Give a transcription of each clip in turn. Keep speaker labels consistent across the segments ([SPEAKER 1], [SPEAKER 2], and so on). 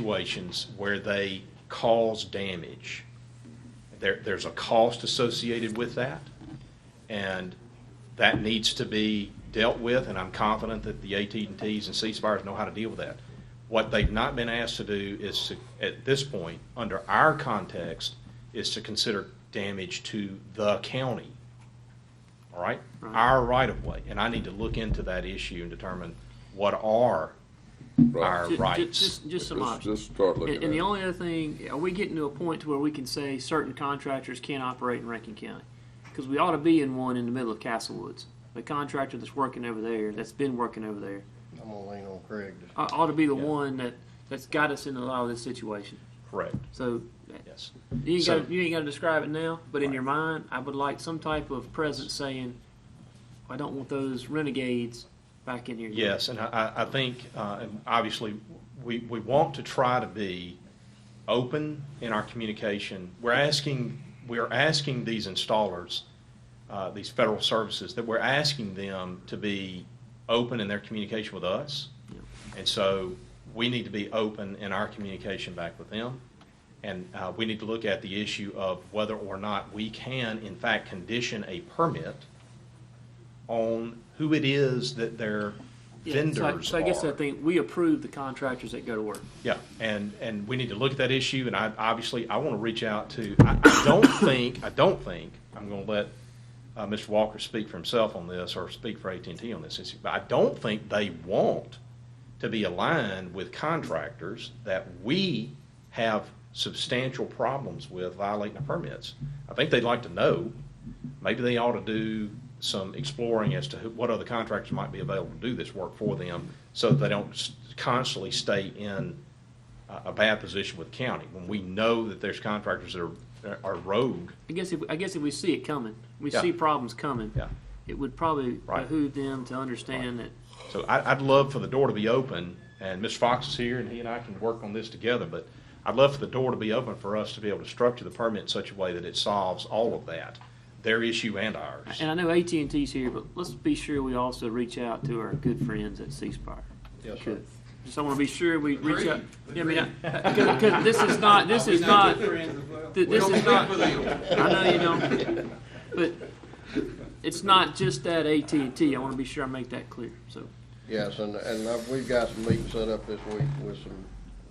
[SPEAKER 1] situations where they cause damage. There, there's a cost associated with that, and that needs to be dealt with, and I'm confident that the at and ts and C-Spires know how to deal with that. What they've not been asked to do is to, at this point, under our context, is to consider damage to the county. All right? Our right-of-way, and I need to look into that issue and determine what are our
[SPEAKER 2] Ju- ju-
[SPEAKER 1] rights.
[SPEAKER 2] Just, just some
[SPEAKER 3] Let's-
[SPEAKER 2] options.
[SPEAKER 3] let's start looking
[SPEAKER 2] And, and the
[SPEAKER 3] at it.
[SPEAKER 2] only other thing, are we getting to a point to where we can say certain contractors can't operate in Rankin County? Because we ought to be in one in the middle of Castle Woods. The contractor that's working over there, that's been working over there,
[SPEAKER 4] I'm gonna lean on Craig. to-
[SPEAKER 2] ought, ought to be the
[SPEAKER 1] Yeah.
[SPEAKER 2] one that, that's got us in a lot of this situation.
[SPEAKER 1] Correct,
[SPEAKER 2] So
[SPEAKER 1] yes.
[SPEAKER 2] you ain't
[SPEAKER 1] So-
[SPEAKER 2] got you ain't got to describe it now, but in your mind, I would like some type of presence saying, "I don't want those renegades back in here."
[SPEAKER 1] Yes, and I, I I think, uh, and obviously, we, we want to try to be open in our communication. We're asking, we are asking these installers, uh, these federal services, that we're asking them to be open in their communication with us. And so we need to be open in our communication back with them. And uh, we need to look at the issue of whether or not we can, in fact, condition a permit on who it is that their
[SPEAKER 2] Yeah, so I-
[SPEAKER 1] vendors are.
[SPEAKER 2] So I guess I think we approve the contractors that go to work.
[SPEAKER 1] Yeah, and, and we need to look at that issue, and I, obviously, I want to reach out to, I, I don't think, I don't think, I'm going to let uh, Mr. Walker speak for himself on this, or speak for at and T on this issue, but I don't think they want to be aligned with contractors that we have substantial problems with violating the permits. I think they'd like to know, maybe they ought to do some exploring as to who- what other contractors might be available to do this work for them, so that they don't s- constantly stay in a- a bad position with the county, when we know that there's contractors that are, are rogue.
[SPEAKER 2] I guess if I guess if we see it coming, we
[SPEAKER 1] Yeah.
[SPEAKER 2] see problems coming.
[SPEAKER 1] Yeah.
[SPEAKER 2] It would probably
[SPEAKER 1] Right.
[SPEAKER 2] behoove them to understand that
[SPEAKER 1] So I, I'd love for the door to be open, and Ms. Fox is here, and he and I can work on this together, but I'd love for the door to be open for us to be able to structure the permit in such a way that it solves all of that, their issue and ours.
[SPEAKER 2] And I know AT and T's here, but let's be sure we also reach out to our good friends at C Spire.
[SPEAKER 4] Yes, sir.
[SPEAKER 2] Good. Just I want to be sure we reach out. Yeah, I mean, because this is not, this is not, th- this is not. I know you don't, but it's not just that AT and T. I want to be sure I make that clear. So
[SPEAKER 4] Yes, and, and I've- we've got some meetings set up this week with some,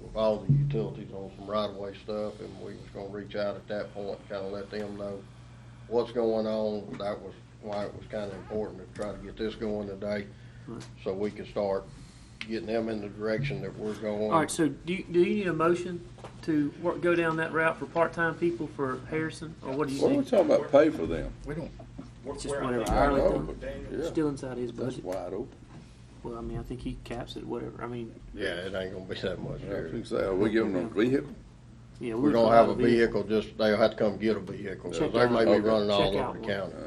[SPEAKER 4] with all the utilities on some right-of-way stuff, and we was gonna reach out at that point, kinda let them know what's going on. That was why it was kinda important to try to get this going today,
[SPEAKER 2] Right.
[SPEAKER 4] so we can start getting them in the direction that we're
[SPEAKER 2] all
[SPEAKER 4] going.
[SPEAKER 2] right. So do you, do you need a motion to work, go down that route for part time people for Harrison, or what do you
[SPEAKER 3] What are we
[SPEAKER 2] need?
[SPEAKER 3] talking about pay for them?
[SPEAKER 2] It's just whatever
[SPEAKER 3] I
[SPEAKER 2] hourly
[SPEAKER 3] know,
[SPEAKER 2] thing.
[SPEAKER 3] but, yeah,
[SPEAKER 2] Still inside his
[SPEAKER 3] that's
[SPEAKER 2] budget.
[SPEAKER 3] wide open.
[SPEAKER 2] Well, I mean, I think he caps it. Whatever. I mean,
[SPEAKER 4] Yeah, it ain't gonna be that much
[SPEAKER 3] Yeah, I
[SPEAKER 4] there.
[SPEAKER 3] think so. Are we giving them a vehicle?
[SPEAKER 2] yeah,
[SPEAKER 4] We're
[SPEAKER 2] would
[SPEAKER 4] gonna have a
[SPEAKER 2] probably be-
[SPEAKER 4] vehicle, just, they'll have to come get a vehicle, 'cause
[SPEAKER 2] Check
[SPEAKER 4] they may be
[SPEAKER 3] out.
[SPEAKER 4] running all
[SPEAKER 2] Check
[SPEAKER 4] over
[SPEAKER 2] out
[SPEAKER 4] the
[SPEAKER 2] one.
[SPEAKER 4] county,
[SPEAKER 3] Uh,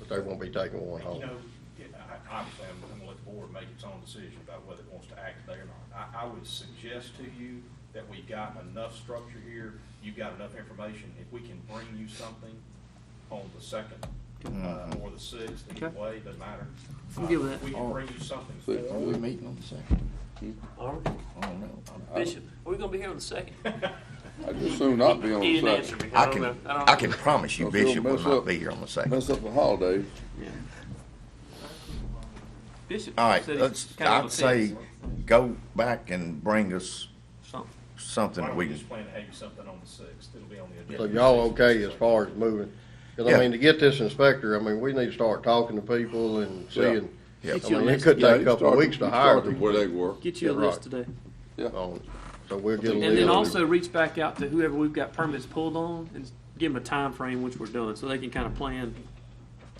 [SPEAKER 4] but they won't be taking one home.
[SPEAKER 1] You know, it- I- obviously, I'm going to let the board make its own decision about whether it wants to act today or not. I, I would suggest to you that we've got enough structure here, you've got enough information. If we can bring you something on the second uh,
[SPEAKER 4] Mm-hmm.
[SPEAKER 1] or the sixth, either
[SPEAKER 2] Okay.
[SPEAKER 1] way, doesn't matter.
[SPEAKER 2] I'm good with
[SPEAKER 1] Uh,
[SPEAKER 2] that.
[SPEAKER 1] We can bring you something
[SPEAKER 3] So it's
[SPEAKER 1] formal.
[SPEAKER 3] really-
[SPEAKER 5] meeting on the second?
[SPEAKER 2] All right.
[SPEAKER 5] I don't know.
[SPEAKER 2] Bishop, are we gonna be here on the second?
[SPEAKER 3] I'd just soon not be on the
[SPEAKER 2] He didn't answer
[SPEAKER 3] side.
[SPEAKER 2] me.
[SPEAKER 5] I
[SPEAKER 2] don't
[SPEAKER 5] can,
[SPEAKER 2] know. I don't
[SPEAKER 5] I can promise you
[SPEAKER 3] Don't feel
[SPEAKER 5] Bishop will
[SPEAKER 3] messed
[SPEAKER 5] not
[SPEAKER 3] up.
[SPEAKER 5] be here on the second.
[SPEAKER 3] Mess up the holidays.
[SPEAKER 2] Bishop
[SPEAKER 5] All right,
[SPEAKER 2] said he
[SPEAKER 5] let's,
[SPEAKER 2] kinda
[SPEAKER 5] I'd
[SPEAKER 2] upset.
[SPEAKER 5] say, go back and bring us
[SPEAKER 2] Something.
[SPEAKER 5] something
[SPEAKER 1] Why
[SPEAKER 5] that
[SPEAKER 1] don't we
[SPEAKER 5] we can,
[SPEAKER 1] just plan to have you something on the sixth? It'll be on the
[SPEAKER 4] So
[SPEAKER 1] agenda.
[SPEAKER 4] y'all okay as far as moving? Because I
[SPEAKER 5] Yeah.
[SPEAKER 4] mean, to get this inspector, I mean, we need to start talking to people and seeing.
[SPEAKER 5] Yeah.
[SPEAKER 4] I
[SPEAKER 2] Get you a
[SPEAKER 4] mean, it
[SPEAKER 2] list,
[SPEAKER 4] could
[SPEAKER 3] Yeah,
[SPEAKER 4] take a
[SPEAKER 3] you
[SPEAKER 4] couple
[SPEAKER 3] start-
[SPEAKER 4] weeks
[SPEAKER 3] you
[SPEAKER 4] to hire
[SPEAKER 3] start them Where
[SPEAKER 4] people.
[SPEAKER 3] they work.
[SPEAKER 2] get you a
[SPEAKER 4] Yeah,
[SPEAKER 2] list
[SPEAKER 4] right.
[SPEAKER 2] today.
[SPEAKER 4] on it. So we'll get a
[SPEAKER 2] And
[SPEAKER 4] list.
[SPEAKER 2] then also reach back out to whoever we've got permits pulled on and give them a time frame which we're doing, so they can kinda plan.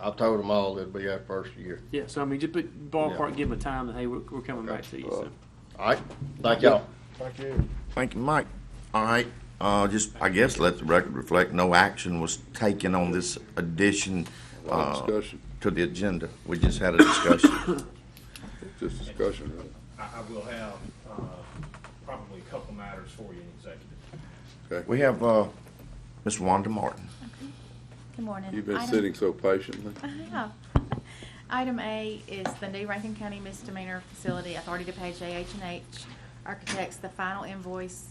[SPEAKER 4] I told them all it'd be that first year.
[SPEAKER 2] Yeah, so I mean, just put ballpark, give them a time, that hey, we're, we're coming back to you, so.
[SPEAKER 4] All right, thank y'all.
[SPEAKER 5] thank you, Mike. All right, uh, just, I guess, let the record reflect, no action was taken on this addition,
[SPEAKER 3] A lot of
[SPEAKER 4] Oh.
[SPEAKER 5] uh,
[SPEAKER 3] discussion,
[SPEAKER 5] to the agenda. We just had a discussion.
[SPEAKER 3] just discussion, really.
[SPEAKER 1] I, I will have, uh, probably a couple matters for you in executive.
[SPEAKER 3] Okay.
[SPEAKER 5] We have, uh, Ms. Wanda Martin.
[SPEAKER 6] Good morning.
[SPEAKER 3] You've been
[SPEAKER 6] Item-
[SPEAKER 3] sitting so patiently.
[SPEAKER 6] I have. Item A is the new Rankin County misdemeanor facility authority to pay JH and H Architects, the final invoice